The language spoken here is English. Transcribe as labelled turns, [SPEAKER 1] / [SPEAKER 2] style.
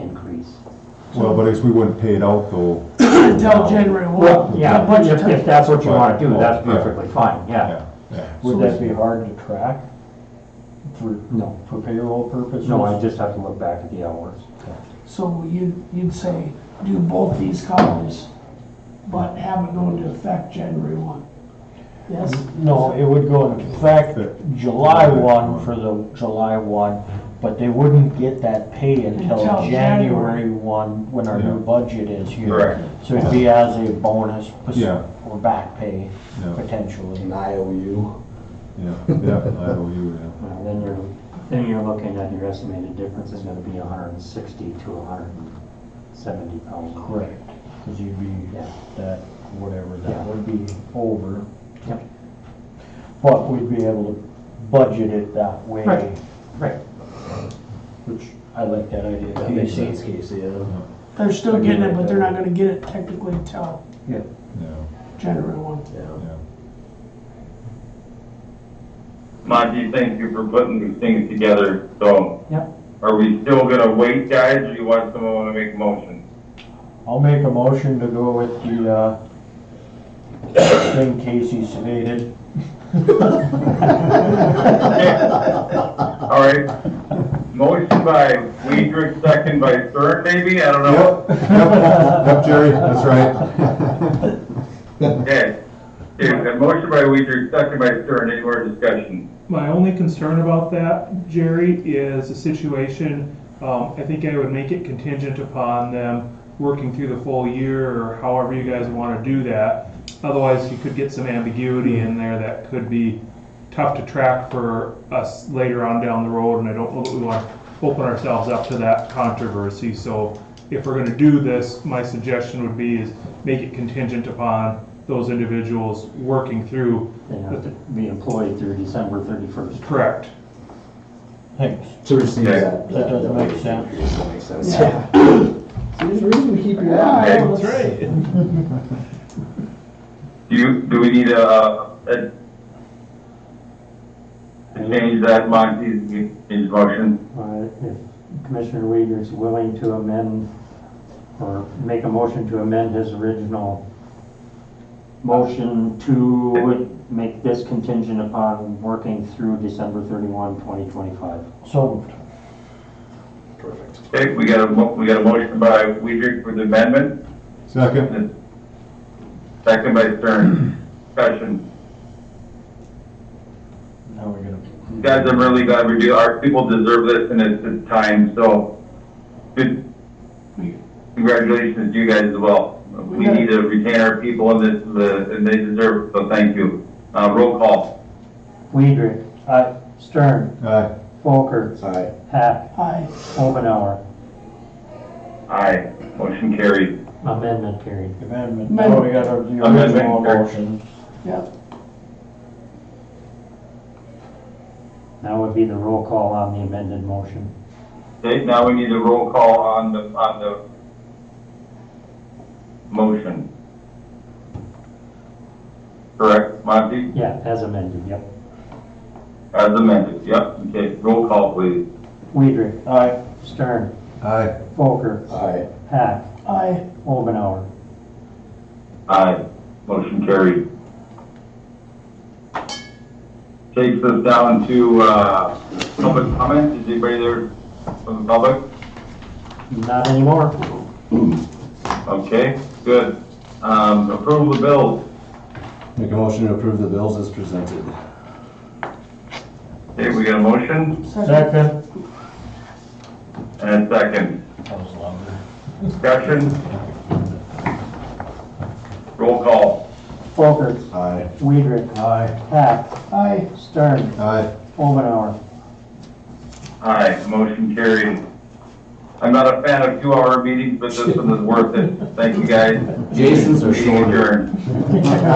[SPEAKER 1] increase.
[SPEAKER 2] Well, but I guess we wouldn't pay it out though.
[SPEAKER 3] Until January
[SPEAKER 4] Well,
[SPEAKER 3] one.
[SPEAKER 4] yeah,
[SPEAKER 3] Budget
[SPEAKER 4] if,
[SPEAKER 3] time.
[SPEAKER 4] if that's what you wanna do,
[SPEAKER 2] Right.
[SPEAKER 4] that's
[SPEAKER 2] Yeah.
[SPEAKER 4] perfectly fine, yeah.
[SPEAKER 2] Yeah, yeah.
[SPEAKER 5] Would that be hard to track for,
[SPEAKER 4] No,
[SPEAKER 5] for payroll purposes?
[SPEAKER 4] no, I just have to look back at the hours.
[SPEAKER 3] So you, you'd say do both these columns, but have it go into effect January one. Yes?
[SPEAKER 4] Mm-hmm.
[SPEAKER 5] No, it would go in effect July one for the July one, but they wouldn't get that pay until
[SPEAKER 3] Until January.
[SPEAKER 5] January one, when our
[SPEAKER 2] Yeah.
[SPEAKER 5] new budget is here.
[SPEAKER 6] Correct.
[SPEAKER 5] So it'd be as a bonus, pos-
[SPEAKER 2] Yeah.
[SPEAKER 5] or back pay,
[SPEAKER 2] Yeah.
[SPEAKER 5] potentially.
[SPEAKER 7] an IOU.
[SPEAKER 2] Yeah, yeah, I owe you, yeah.
[SPEAKER 4] Well, Then you're, then you're looking at your estimated difference is gonna be hundred and sixty to hundred and seventy thousand.
[SPEAKER 5] Correct, because you'd be,
[SPEAKER 4] Yeah.
[SPEAKER 5] that, whatever, that
[SPEAKER 4] Yeah.
[SPEAKER 5] would be over.
[SPEAKER 4] Yep.
[SPEAKER 5] But we'd be able to budget it that way.
[SPEAKER 4] Right. Right,
[SPEAKER 5] Which, I like that idea.
[SPEAKER 7] That makes sense, Casey, yeah.
[SPEAKER 3] They're still getting it, but they're not gonna get it technically till
[SPEAKER 2] Yeah,
[SPEAKER 3] January one.
[SPEAKER 7] Yeah.
[SPEAKER 2] yeah.
[SPEAKER 6] Monty, thank you for putting these things together, so.
[SPEAKER 4] Yep.
[SPEAKER 6] Are we still gonna wait, guys, or you want someone wanna make a motion?
[SPEAKER 5] I'll make a motion to go with the, uh, thing Casey stated.
[SPEAKER 6] All right, motion by Weidrich, second by Stern, maybe, I don't know.
[SPEAKER 2] Yep, yep, yep, Jerry, that's right.
[SPEAKER 6] Okay, There's a motion by Weidrich, second by Stern, any more discussion?
[SPEAKER 8] My only concern about that, Jerry, is the situation, um, I think I would make it contingent upon them working through the full year or however you guys wanna do that. Otherwise, you could get some ambiguity in there that could be tough to track for us later on down the road, and I don't know that we wanna open ourselves up to that controversy, so if we're gonna do this, my suggestion would be is make it contingent upon those individuals working through,
[SPEAKER 4] they have to be employed through December thirty-first.
[SPEAKER 8] correct?
[SPEAKER 5] Thanks.
[SPEAKER 7] To receive
[SPEAKER 6] Okay.
[SPEAKER 7] that.
[SPEAKER 5] That doesn't make sense.
[SPEAKER 7] It doesn't make sense.
[SPEAKER 1] Yeah.
[SPEAKER 7] See, there's a reason we keep you
[SPEAKER 1] Yeah,
[SPEAKER 7] on.
[SPEAKER 1] that's
[SPEAKER 7] right.
[SPEAKER 6] Do you, do we need a, a, to change that Monty's, his motion?
[SPEAKER 4] Uh, If Commissioner Weider is willing to amend or make a motion to amend his original motion to make this contingent upon working through December 31, 2025.
[SPEAKER 5] So,
[SPEAKER 7] Perfect.
[SPEAKER 6] Okay, we got a, mo- we got a motion by Weidrich for the amendment.
[SPEAKER 2] Second,
[SPEAKER 6] Second by Stern, discussion.
[SPEAKER 5] now we're gonna.
[SPEAKER 6] Guys, I'm really glad we do, our people deserve this and it's, it's time, so. Good, congratulations to you guys as well. We need to retain our people and this, the, and they deserve, it, so thank you. Uh, roll call.
[SPEAKER 4] Weider.
[SPEAKER 5] uh,
[SPEAKER 4] Aye. Stern.
[SPEAKER 2] aye.
[SPEAKER 4] Folker.
[SPEAKER 7] Aye.
[SPEAKER 4] Hack.
[SPEAKER 3] Aye.
[SPEAKER 4] Omenauer.
[SPEAKER 6] Aye, motion carried.
[SPEAKER 4] Amendment carried.
[SPEAKER 5] Amendment, now we got our, the
[SPEAKER 6] Amendment.
[SPEAKER 5] original motion.
[SPEAKER 3] Yep.
[SPEAKER 4] That would be the roll call on the amended motion.
[SPEAKER 6] Okay, now we need a roll call on the, on the motion. Correct, Monty?
[SPEAKER 4] Yeah, as amended, yep.
[SPEAKER 6] As amended, yep, okay, roll call please.
[SPEAKER 4] Weider.
[SPEAKER 5] Aye.
[SPEAKER 4] Stern.
[SPEAKER 2] Aye.
[SPEAKER 4] Folker.
[SPEAKER 7] Aye.
[SPEAKER 4] Hack.
[SPEAKER 3] Aye.
[SPEAKER 4] Omenauer.
[SPEAKER 6] Aye, motion carried. Takes us down to, uh, public comment, is anybody there from the public?
[SPEAKER 4] Not anymore.
[SPEAKER 6] Okay, good. Um, approval of bills,
[SPEAKER 7] Make a motion to approve the bills as presented.
[SPEAKER 6] okay, we got a motion
[SPEAKER 3] Second.
[SPEAKER 5] Second.
[SPEAKER 6] and a second.
[SPEAKER 5] That was louder.
[SPEAKER 6] Discussion? Roll call.
[SPEAKER 4] Folker.
[SPEAKER 7] Aye.
[SPEAKER 4] Weidrich.
[SPEAKER 5] Aye.
[SPEAKER 4] Hack.
[SPEAKER 3] Aye.
[SPEAKER 4] Stern.
[SPEAKER 2] Aye.
[SPEAKER 4] Omenauer.
[SPEAKER 6] Aye, motion carried. I'm not a fan of two-hour meetings, but this one is worth it. Thank you, guys.
[SPEAKER 7] Jason's are
[SPEAKER 6] Meeting
[SPEAKER 7] shorter.
[SPEAKER 6] adjourned.